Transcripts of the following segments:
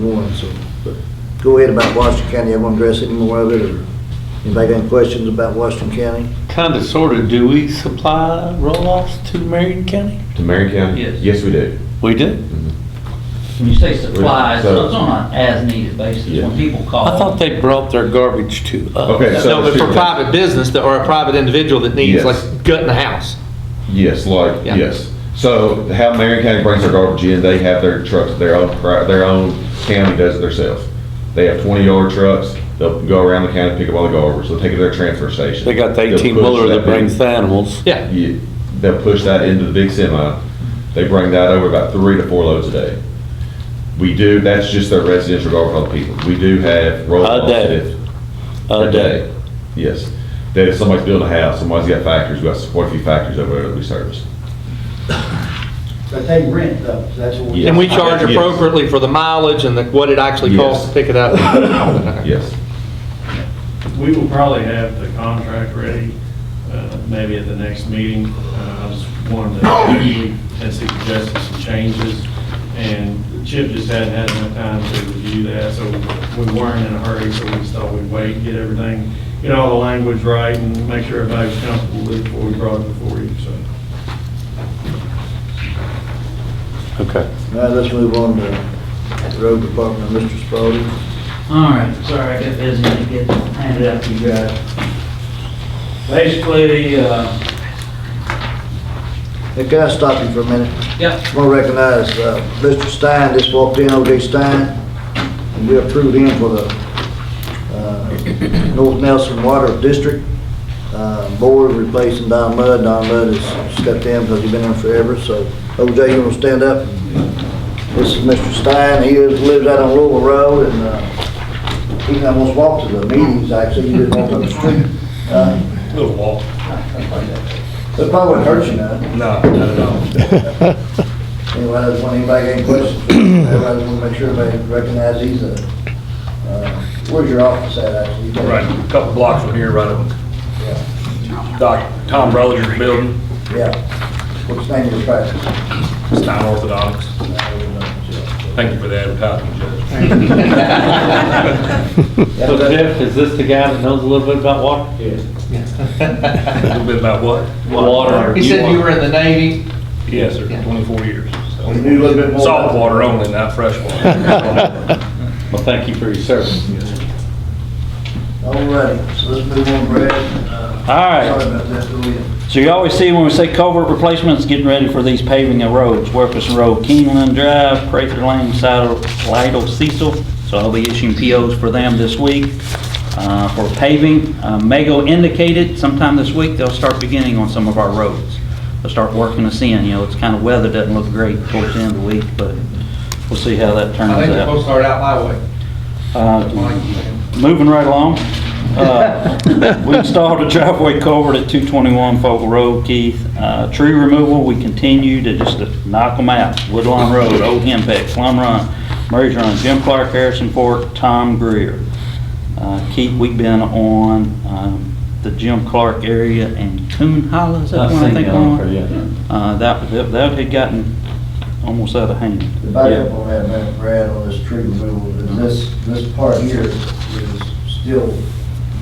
one, so. but Go ahead about Washington County, everyone address any more of it, or anybody got any questions about Washington County? Kind of, sort of, do we supply roll-offs to Marion County? To Marion County? Yes. Yes, we do. We do. When you say supplies, So- so it's on an as-needed basis, when Yeah. people call. I thought they brought their garbage to us. Okay, so- No, but for private business, that- or a private individual that needs, Yes. like, gutting a house. Yes, like, Yeah. yes. So how Marion County brings their garbage in, they have their trucks, their own, pri- their own county does it themselves. They have twenty yard trucks, they'll go around the county, pick up all the garbage, they'll take it to their transfer station. They got the They'll 18 push wheeler that big- brings the animals. Yeah, Yeah, they'll push that into the big semi. They bring that over about three to four loads a day. We do, that's just their residential garbage on people. We do have roll A offs. day. A day, yes. That if somebody's building a house, somebody's got factories, we've got quite a few factories over there that we service. But they rent those, that's what we- and we charge Yes. appropriately for the mileage and the- what it actually costs to Yes. pick it up. Yes. We will probably have the contract ready, uh, maybe at the next meeting. Uh, I just wanted to, we had suggested some changes, and Chip just hadn't had enough time to review that, so we weren't in a hurry, so we just thought we'd wait, get everything, get all the language right, and make sure everybody's comfortable with it before we brought it before you, so. Okay. All right, let's move on to the road department, Mr. Spalding. All right, sorry, I got busy to get handed out to you guys. Basically, uh, Hey, can I stop you for a minute? yep, I'm gonna recognize, uh, Mr. Stein just walked in, O.J. Stein, and we approved him for the, uh, North Nelson Water District, uh, board replacing Don Mudd. Don Mudd has stepped in because he's been in forever, so O.J., you wanna stand up? This is Mr. Stein, he is- lives out on Louisville Road, and, uh, he almost walked to the meetings, actually, he didn't walk up the street. Uh, Little walk. It probably wouldn't hurt you none. No, not at all. Anybody else want, anybody got any questions? Everybody want to make sure everybody recognizes these, uh, uh, where's your office at, actually? You got- Right, a couple blocks from here, right up, Yeah, Doc, Tom Rollinger's building, Yeah. what's the name of your practice? Stein Orthodontics. Thank you for the advertisement, Judge. Yeah, So but- Jeff, is this the guy that knows a little bit about water? A little bit about what? Water. He said you were in the Navy. Yes, sir, 24 years. so. We knew a little bit more. Salt water only, not fresh water. Well, thank you for your service. All righty, so let's move on, Brad. Uh, all right. Sorry about that, go ahead. So you always see when we say culvert replacements, getting ready for these paving of roads, Werpus Road, Keeneland Drive, Prather Lane, Saddle, Lidle, Cecil. So I'll be issuing POs for them this week uh, for paving. Uh, Mago indicated sometime this week, they'll start beginning on some of our roads. They'll start working us in, you know, it's kind of weather doesn't look great towards the end of the week, but we'll see how that turns out. start out my way. Uh, Moving right along, uh, we installed a driveway culvert at 221 Fogle Road, Keith. Uh, Tree removal, we continue to just knock them out. Woodlawn Road, Old Hempstead, Plum Run, Murray's Run, Jim Clark, Harrison Fork, Tom Greer. Uh, Keith, we've been on um, the Jim Clark area and Coon Hollow, is that the one I think on? Uh, That, that- that had gotten almost out of hand. The backup on that, man, Brad, on this tree removal, is this, this part here is still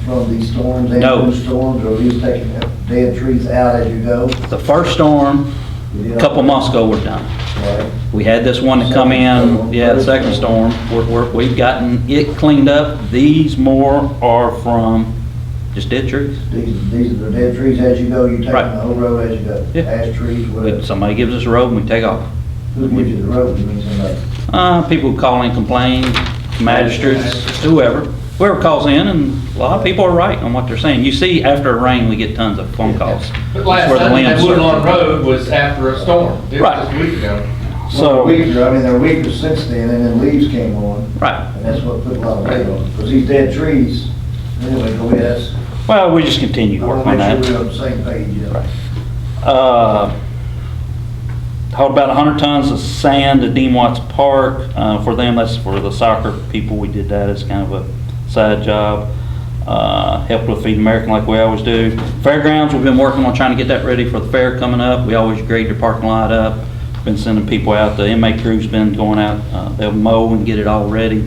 from these storms, and No. those storms, or are you taking dead trees out as you go? The first storm, You did a all- couple months ago, we're done. Right. We had this one to come in, yeah, the second storm, we're, we're, we've gotten it cleaned up. These more are from just dead trees. These, these are the dead trees as you go, you take Right. the whole road as you go. Yeah. Ash trees, But whatever. Somebody gives us a road and we take off. Who gives you the road, you mean somebody? Uh, people call and complain, magistrates, whoever, whoever calls in, and a lot of people are right on what they're saying. You see, after a rain, we get tons of phone calls. But last That's where the Sunday, land Woodlawn starts. Road was after a storm. It was just a Right. week ago. Well, So, they're weaker, I mean, they're weaker since then, and then leaves came on, right. and that's what put a lot of weight on, because these dead trees, anyway, go ahead, that's, Well, we just continue I working want to on that. make sure we're on the same page, yeah. Uh, Hauled about 100 tons of sand to Dean Watts Park. Uh, For them, that's for the soccer people. We did that as kind of a side job. Uh, Helped with Feed American like we always do. Fairgrounds, we've been working on trying to get that ready for the fair coming up. We always grade the parking lot up, been sending people out, the inmate crew's been going out, uh, they'll mow and get it all ready.